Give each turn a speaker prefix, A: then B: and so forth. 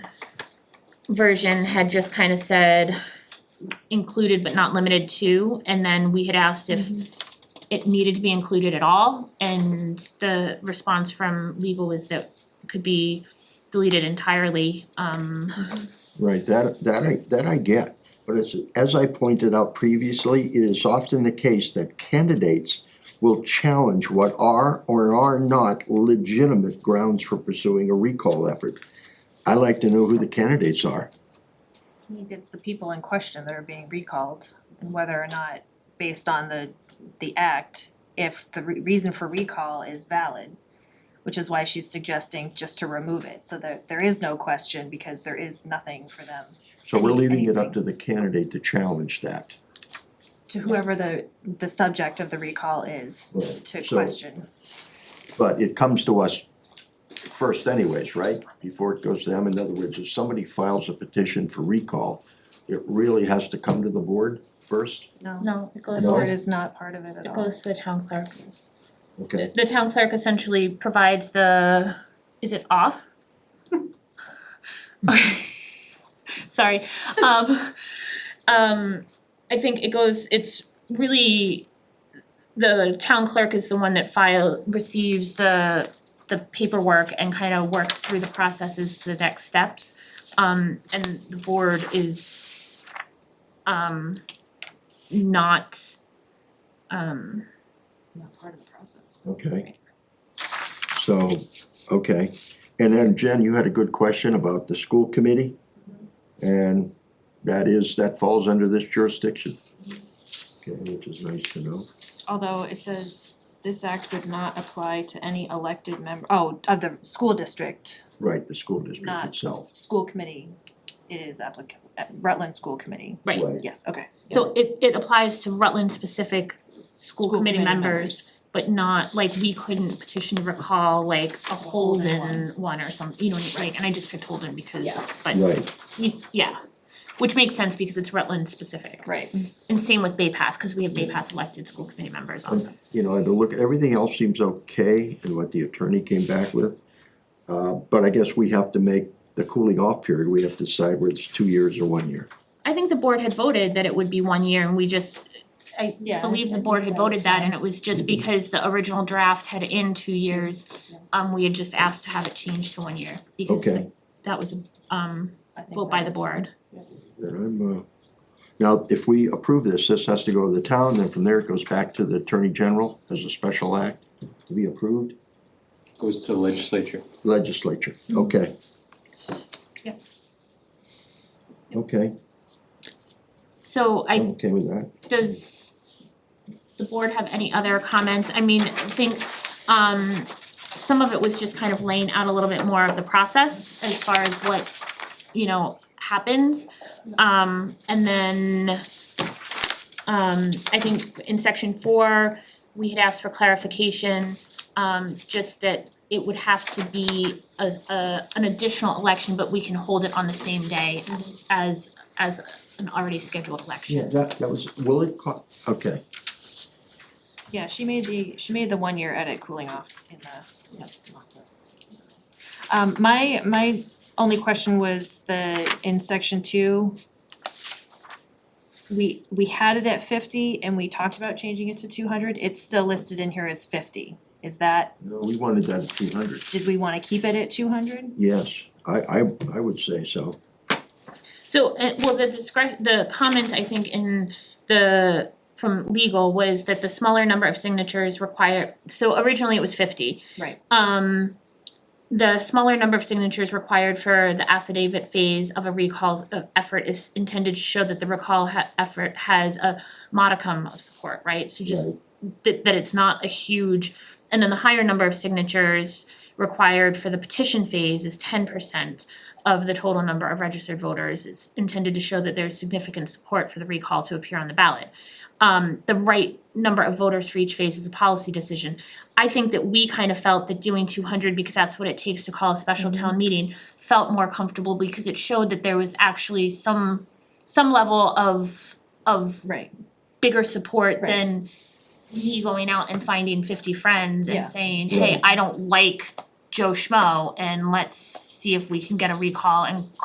A: version had just kind of said included but not limited to, and then we had asked if it needed to be included at all, and the response from legal was that it could be deleted entirely, um
B: Right, that, that I, that I get, but it's, as I pointed out previously, it is often the case that candidates will challenge what are or are not legitimate grounds for pursuing a recall effort. I like to know who the candidates are.
C: I think it's the people in question that are being recalled, and whether or not, based on the, the act, if the re- reason for recall is valid, which is why she's suggesting just to remove it, so that there is no question, because there is nothing for them,
B: So we're leaving it up to the candidate to challenge that.
C: to whoever the, the subject of the recall is,
B: Right,
C: to
B: so-
C: question.
B: But it comes to us first anyways, right? Before it goes to them, in other words, if somebody files a petition for recall, it really has to come to the board first?
C: No,
A: no, it
C: the
A: goes
C: board
A: to,
C: is not part of it at
A: it
C: all.
A: goes to the town clerk.
B: Okay,
A: The town clerk essentially provides the, is it off? Sorry, um, um, I think it goes, it's really, the town clerk is the one that file, receives the, the paperwork and kind of works through the processes to the next steps. Um, and the board is, um, not, um,
C: Not part of the process.
B: okay. So, okay, and then Jen, you had a good question about the school committee? And that is, that falls under this jurisdiction? Okay, which is nice to know.
D: Although it says this act would not apply to any elected member,
C: Oh, of the school district,
B: Right, the school district
C: Not-
B: itself.
C: school committee, it is applicable, Rutland School Committee,
A: Right.
C: yes, okay.
A: So it it applies to Rutland specific school
D: School
A: committee
D: committee
A: members, but not like we couldn't petition to recall like a
C: Holden
A: Holden one or something, you know, right, and I just picked Holden because,
C: Yeah.
A: but,
B: Right,
A: you- yeah. Which makes sense because it's Rutland specific,
C: Right.
A: and same with Bay Path, cause we have Bay Path elected school committee members also.
B: you know, and to look, everything else seems okay and what the attorney came back with. Uh, but I guess we have to make the cooling off period, we have to decide whether it's two years or one year.
A: I think the board had voted that it would be one year and we just, I
C: Yeah,
A: believe
C: I
A: the board
C: think
A: had
C: that was
A: voted that
C: fine.
A: and it was just because the original draft had in two years.
C: yeah.
A: Um, we had just asked to have it changed to one year because
B: Okay.
A: that was a um
C: I think
A: vote
C: that
A: by the
C: was-
A: board.
B: Then I'm, uh, now, if we approve this, this has to go to the town, then from there it goes back to the Attorney General as a special act to be approved,
E: Goes to the legislature.
B: legislature, okay.
A: Yep.
B: Okay,
A: So I
B: I'm okay with that.
A: does the board have any other comments? I mean, I think um some of it was just kind of laying out a little bit more of the process as far as what, you know, happens. Um and then um I think in section four, we had asked for clarification, um just that it would have to be a a an additional election, but we can hold it on the same day as as an already scheduled election.
B: Yeah, that, that was, will it, co- okay,
C: Yeah, she made the, she made the one-year edit cooling off in the, Um, my, my only question was the, in section two, we, we had it at fifty and we talked about changing it to two hundred, it's still listed in here as fifty. Is that,
B: No, we wanted that at two hundred,
C: did we wanna keep it at two hundred?
B: yes, I, I, I would say so.
A: So, uh, well, the discretion, the comment, I think, in the, from legal was that the smaller number of signatures require, so originally it was fifty.
C: Right.
A: Um, the smaller number of signatures required for the affidavit phase of a recall uh, effort is intended to show that the recall ha- effort has a modicum of support, right? So just that that it's not a huge, and then the higher number of signatures required for the petition phase is ten percent of the total number of registered voters. It's intended to show that there's significant support for the recall to appear on the ballot. Um, the right number of voters for each phase is a policy decision. I think that we kind of felt that doing two hundred, because that's what it takes to call a special town meeting, felt more comfortable because it showed that there was actually some some level of of
C: Right,
A: bigger support
C: Right.
A: than me going out and finding fifty friends
C: Yeah.
A: and saying, hey,
B: Right.
A: I don't like Joe Schmo and let's see if we can get a recall and